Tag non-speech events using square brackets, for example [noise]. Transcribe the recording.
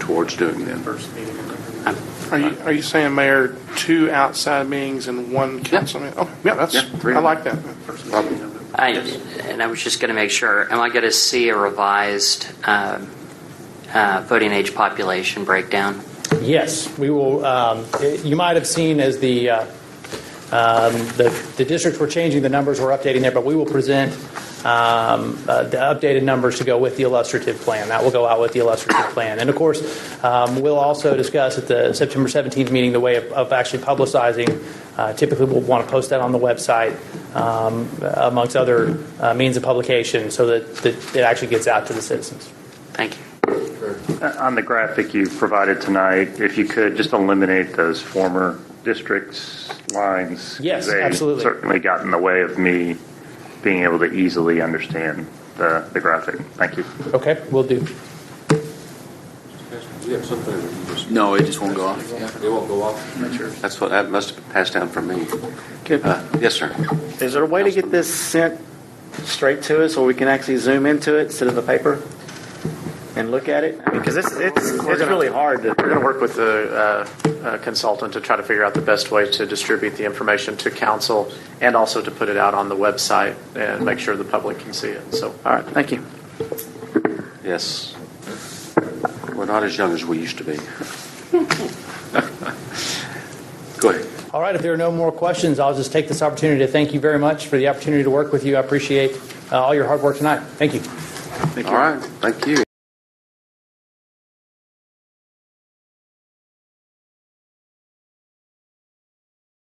board's doing then. First meeting in November. Are you, are you saying, Mayor, two outside meetings and one council meeting? Oh, yeah, that's, Yeah, three. I like that. First meeting in November. I, Yes. and I was just going to make sure, am I going to see a revised um, uh, voting age population breakdown? Yes, we will. Um, it- you might have seen as the, uh, um, the the districts were changing the numbers, we're updating there, but we will present um, uh, the updated numbers to go with the illustrative plan. That will go out with the illustrative plan, and of course, um, we'll also discuss at the September 17th meeting the way of, of actually publicizing. Uh, typically, we'll want to post that on the website um, amongst other uh, means of publication, so that, that it actually gets out to the citizens. Thank you. On the graphic you provided tonight, if you could just eliminate those former districts lines. Yes, They absolutely. Certainly got in the way of me being able to easily understand the, the graphic. Thank you. Okay, we'll do. You have something that you just. No, it just won't go off. Yeah. It won't go off? Sure. That's what, that must have passed down from me. Good. Uh, Yes, sir. Is there a way to get this sent straight to us, or we can actually zoom into it instead of the paper and look at it? Because it's, it's, it's really hard to. We're going to work with the uh, uh, consultant to try to figure out the best way to distribute the information to council and also to put it out on the website and make sure the public can see it. So, all right, thank you. Yes. We're not as young as we used to be. [laughs] Go ahead. All right, if there are no more questions, I'll just take this opportunity to thank you very much for the opportunity to work with you. I appreciate uh, all your hard work tonight. Thank you. All right, thank you.